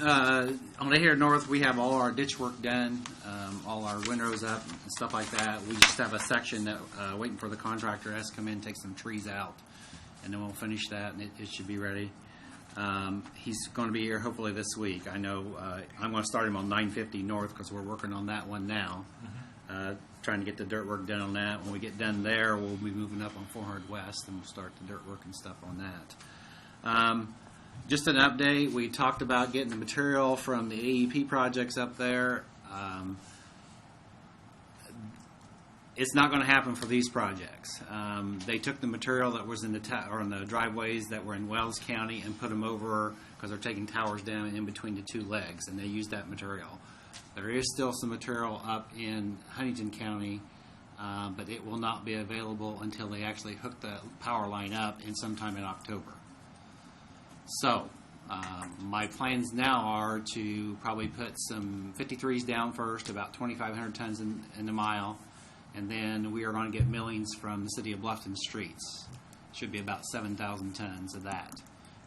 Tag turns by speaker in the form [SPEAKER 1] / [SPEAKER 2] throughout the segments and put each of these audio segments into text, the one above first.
[SPEAKER 1] uh, on the here north, we have all our ditch work done, um, all our windrows up and stuff like that. We just have a section that, uh, waiting for the contractor has to come in, take some trees out, and then we'll finish that, and it, it should be ready. Um, he's gonna be here hopefully this week. I know, uh, I'm gonna start him on nine fifty north, because we're working on that one now. Uh, trying to get the dirt work done on that. When we get done there, we'll be moving up on four hundred west, and we'll start the dirt work and stuff on that. Um, just an update, we talked about getting the material from the AEP projects up there. Um, it's not going to happen for these projects. Um, they took the material that was in the ta- or in the driveways that were in Wells County and put them over because they're taking towers down in between the two legs, and they used that material. There is still some material up in Huntington County, uh, but it will not be available until they actually hook the power line up in sometime in October. So, um, my plans now are to probably put some 53s down first, about 2,500 tons in, in a mile, and then we are going to get millings from the city of Bluffton streets. Should be about 7,000 tons of that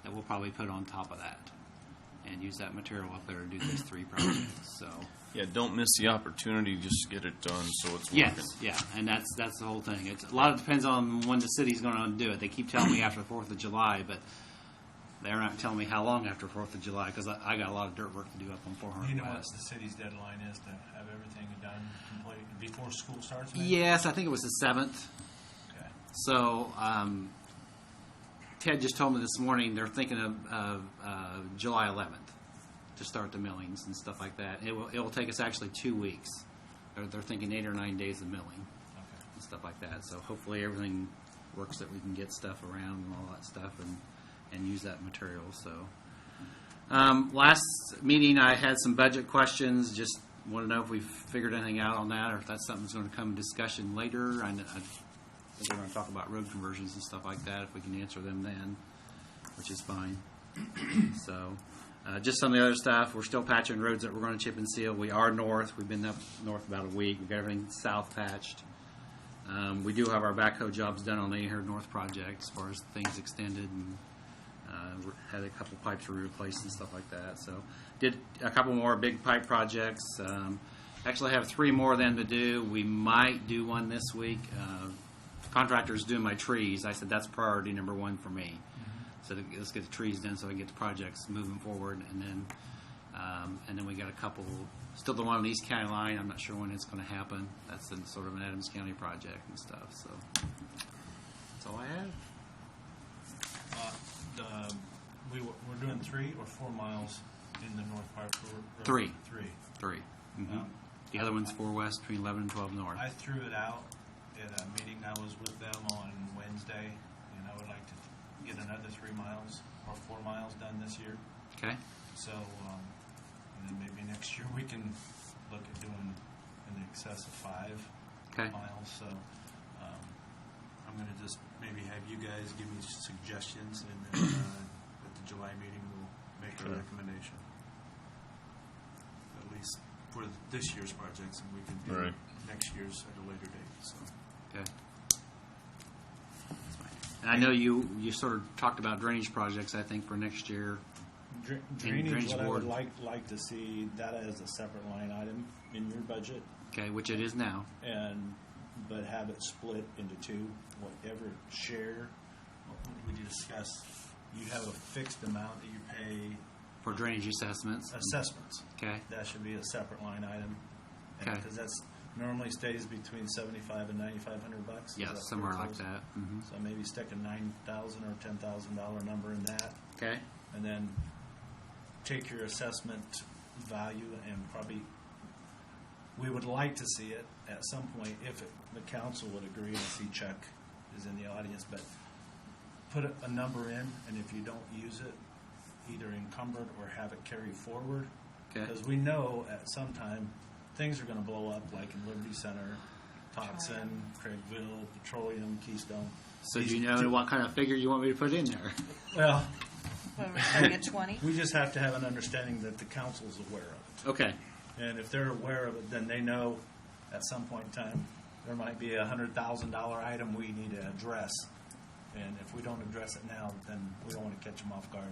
[SPEAKER 1] that we'll probably put on top of that and use that material up there to do these three projects. So,
[SPEAKER 2] Yeah, don't miss the opportunity, just get it done so it's working.
[SPEAKER 1] yes, yeah, and that's that's the whole thing. It's a lot of depends on when the city's going to do it. They keep telling me after the Fourth of July, but they're not telling me how long after Fourth of July because I, I got a lot of dirt work to do up on 400
[SPEAKER 3] You know what
[SPEAKER 1] West.
[SPEAKER 3] the city's deadline is to have everything done complete before school starts? maybe?
[SPEAKER 1] Yes, I think it was the seventh.
[SPEAKER 3] Okay.
[SPEAKER 1] So um, Ted just told me this morning they're thinking of, of uh, July 11th to start the millings and stuff like that. It will it will take us actually two weeks. They're, they're thinking eight or nine days of milling
[SPEAKER 3] Okay.
[SPEAKER 1] and stuff like that. So hopefully everything works that we can get stuff around and all that stuff and, and use that material. So um, last meeting, I had some budget questions. Just want to know if we've figured anything out on that or if that's something that's going to come in discussion later. I, kn- I think we're going to talk about road conversions and stuff like that if we can answer them then, which is fine. So, uh, just some of the other stuff, we're still patching roads that we're gonna chip and seal. We are north, we've been up north about a week, we've got everything south patched. Um, we do have our backhoe jobs done on the Ahern North project as far as things extended and, uh, we had a couple pipes we replaced and stuff like that, so. Did a couple more big pipe projects, um, actually have three more than to do. We might do one this week. Uh, Contractor's doing my trees, I said that's priority number one for me. So to- let's get the trees done so I can get the projects moving forward. And then, um, and then we got a couple, still the one on the East County line. I'm not sure when it's going to happen. That's in sort of an Adams County project and stuff. So that's all I have.
[SPEAKER 3] Uh, the- We, were- we're doing three or four miles in the North Park Road?
[SPEAKER 1] Three.
[SPEAKER 3] Three.
[SPEAKER 1] 3
[SPEAKER 3] Now,
[SPEAKER 1] The other one's four west between 11 and 12 north.
[SPEAKER 3] I threw it out at a meeting I was with them on Wednesday, and I would like to get another three miles or four miles done this year.
[SPEAKER 1] Okay.
[SPEAKER 3] So, um, and then maybe next year we can look at doing in excess of five.
[SPEAKER 1] Okay.
[SPEAKER 3] miles, so um, I'm going to just maybe have you guys give me suggestions, and then uh, at the July meeting, we'll make a
[SPEAKER 2] Sure.
[SPEAKER 3] recommendation. At least for this year's projects, and we can do
[SPEAKER 2] Right.
[SPEAKER 3] next year's at a later date, so.
[SPEAKER 1] Okay. That's fine. And I know you you sort of talked about drainage projects. I think for next year.
[SPEAKER 4] Dra-
[SPEAKER 1] drainage
[SPEAKER 4] Drainage, what I
[SPEAKER 1] board.
[SPEAKER 4] would like, like to see that as a separate line item in your budget
[SPEAKER 1] Okay, which it is now.
[SPEAKER 4] and, but have it split into two, whatever share.
[SPEAKER 3] We discussed, you have a fixed amount that you pay
[SPEAKER 1] For drainage assessments.
[SPEAKER 3] assessments.
[SPEAKER 1] Okay.
[SPEAKER 3] That should be a separate line item,
[SPEAKER 1] Okay.
[SPEAKER 3] because that's normally stays between seventy-five and ninety-five hundred bucks. Is
[SPEAKER 1] Yeah,
[SPEAKER 3] that pretty
[SPEAKER 1] somewhere like
[SPEAKER 3] close?
[SPEAKER 1] that. hmm
[SPEAKER 3] So maybe stick a nine thousand or ten thousand dollar number in that,
[SPEAKER 1] Okay.
[SPEAKER 3] and then take your assessment value and probably, we would like to see it at some point, if it- the council would agree, and I see Chuck is in the audience, but put a- a number in, and if you don't use it, either encumbered or have it carry forward.
[SPEAKER 1] Okay.
[SPEAKER 3] Because we know at some time, things are gonna blow up, like in Liberty Center, Toxin, Craigville, Petroleum, Keystone.
[SPEAKER 1] So
[SPEAKER 3] These
[SPEAKER 1] do you know
[SPEAKER 3] two-
[SPEAKER 1] what kind of figure you want me to put in there?
[SPEAKER 3] Well,
[SPEAKER 5] Well, we're doing a 20?
[SPEAKER 3] we just have to have an understanding that the council's aware of
[SPEAKER 1] Okay.
[SPEAKER 3] it. And if they're aware of it, then they know at some point in time, there might be a hundred thousand dollar item we need to address. And if we don't address it now, then we don't wanna catch them off guard